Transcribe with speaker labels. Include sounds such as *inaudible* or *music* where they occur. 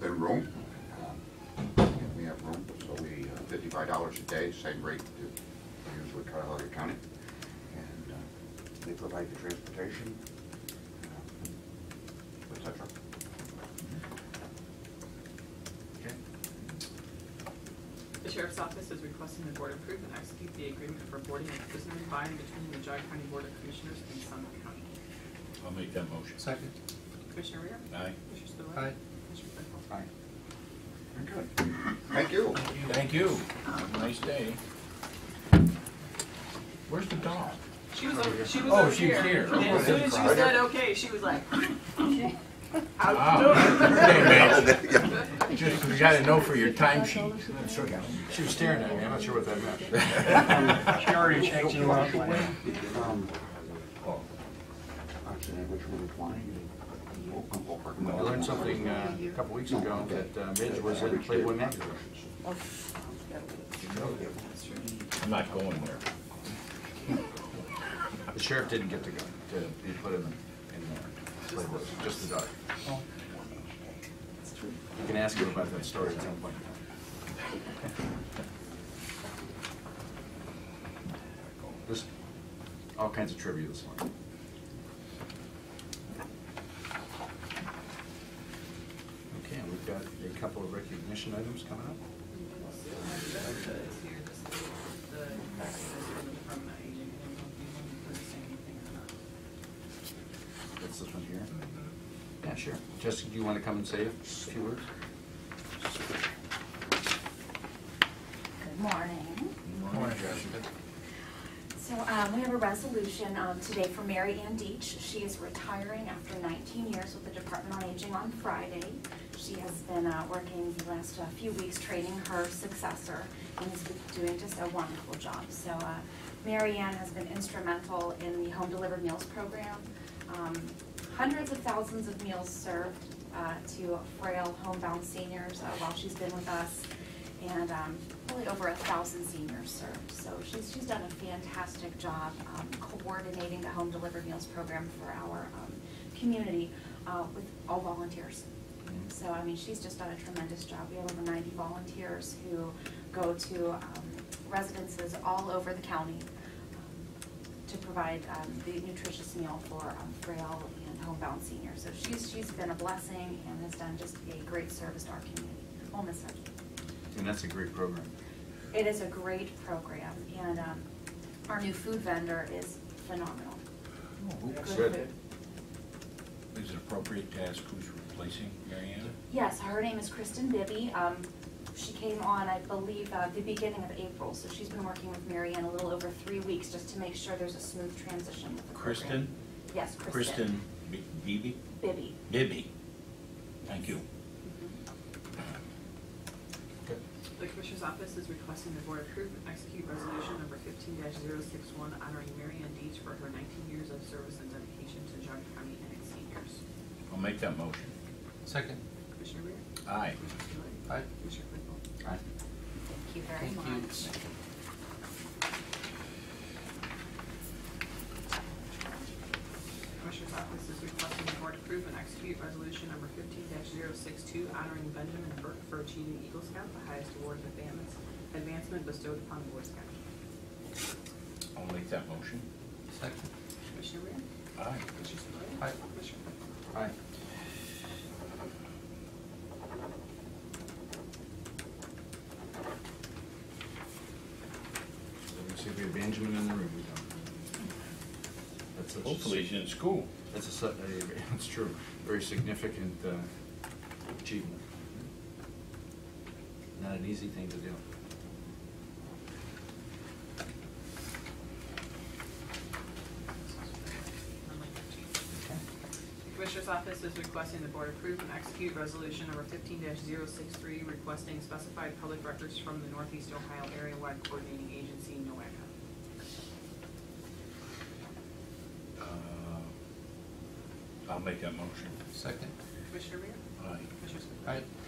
Speaker 1: room. Um, We have room, so we, uh, fifty-five dollars a day, same rate to use with Cuyahoga County. And uh, they provide the transportation, uh, et cetera.
Speaker 2: Okay.
Speaker 3: The sheriff's office is requesting the board approve and execute the agreement for boarding of prisoners by and between the Jog County Board of Commissioners and Summit County.
Speaker 4: I'll make that motion.
Speaker 2: Second.
Speaker 3: Commissioner Rea?
Speaker 4: Aye.
Speaker 3: Commissioner Spillier?
Speaker 2: Aye.
Speaker 3: Commissioner Claypool?
Speaker 1: Aye. Very good. Thank you.
Speaker 4: Thank you. Have a nice day. Where's the dog?
Speaker 3: She was over, she was
Speaker 4: Oh,
Speaker 3: over
Speaker 4: she was
Speaker 3: here.
Speaker 4: here.
Speaker 3: And as soon as you said okay, she was like,
Speaker 4: Wow. Just, you gotta know for your timesheet.
Speaker 2: She was staring at me, I'm not sure what that meant.
Speaker 1: *laughs*
Speaker 5: She already checked you out.
Speaker 1: Um, Actually, which one is mine?
Speaker 2: I learned something uh, a couple weeks ago that uh, Midge was at Playboy Mansion.
Speaker 4: *laughs* I'm not going there.
Speaker 2: The sheriff didn't get to go, to, he put him in, in uh, Playboy, just the dog. You can ask him about that story at some point. Just all kinds of trivia this morning. Okay, and we've got a couple of recognition items coming up. That's this one here? Yeah, sure. Jessica, do you want to come and say a few words?
Speaker 6: Good morning.
Speaker 4: Morning, Jessica.
Speaker 6: So um, we have a resolution um, today for Mary Ann Deach. She is retiring after 19 years with the Department on Aging on Friday. She has been uh, working the last uh, few weeks training her successor and is doing just a wonderful job. So uh, Mary Ann has been instrumental in the Home Delivered Meals Program. Um, hundreds of thousands of meals served uh, to frail homebound seniors uh, while she's been with us, and um, really over a thousand seniors served. So she's, she's done a fantastic job um, coordinating the home delivered meals program for our um, community uh, with all volunteers. So, I mean, she's just done a tremendous job. We have over ninety volunteers who go to um, residences all over the county um, to provide um, the nutritious meal for um, frail and homebound seniors. So she's, she's been a blessing and has done just a great service to our community. We'll miss her.
Speaker 2: And that's a great program.
Speaker 6: It is a great program, and um, our new food vendor is phenomenal.
Speaker 2: Good.
Speaker 6: Good food.
Speaker 4: Is it appropriate to ask who's replacing Mary Ann?
Speaker 6: Yes, her name is Kristen Bibby. Um, She came on, I believe, uh, the beginning of April, so she's been working with Mary Ann a little over three weeks just to make sure there's a smooth transition with the program.
Speaker 4: Kristen?
Speaker 6: Yes,
Speaker 4: Kristen B- Beebe?
Speaker 6: Bibby.
Speaker 4: Bibby. Thank you.
Speaker 2: Good.
Speaker 3: The Commissioner's Office is requesting the Board approve and execute resolution number fifteen 61 honoring Mary Ann Deach for her nineteen years of service and dedication to Jog County and its seniors.
Speaker 4: I'll make that motion.
Speaker 5: Second.
Speaker 3: Commissioner Rea?
Speaker 4: Aye.
Speaker 3: Commissioner Spillier?
Speaker 5: Aye.
Speaker 3: Commissioner Claypool?
Speaker 2: Aye.
Speaker 6: Thank you very
Speaker 5: Thank you.
Speaker 6: much.
Speaker 3: Commissioner's Office is requesting the board approve and execute resolution number fifteen 62 honoring Benjamin Burke for achieving Eagle Scout, the highest award of advancement, advancement bestowed upon the Boy Scout.
Speaker 4: I'll make that motion.
Speaker 5: Second.
Speaker 3: Commissioner Rea?
Speaker 4: Aye.
Speaker 3: Commissioner Spillier?
Speaker 5: Aye.
Speaker 3: Commissioner Claypool?
Speaker 2: Aye. Let me see if we have Benjamin in the room. We don't. That's such a-
Speaker 4: Hopefully he's in school.
Speaker 2: That's a, su- a- that's true, very significant uh, achievement. Not an easy thing to do.
Speaker 3: The Commissioner's Office is requesting the Board approve and execute Resolution Number fifteen 63 requesting specified public records from the Northeast Ohio Area-Wide Coordinating Agency, NOACA.
Speaker 4: Uh, I'll make that motion.
Speaker 5: Second.
Speaker 3: Commissioner Rea?
Speaker 4: Aye.
Speaker 3: Commissioner Spillier?
Speaker 5: Aye.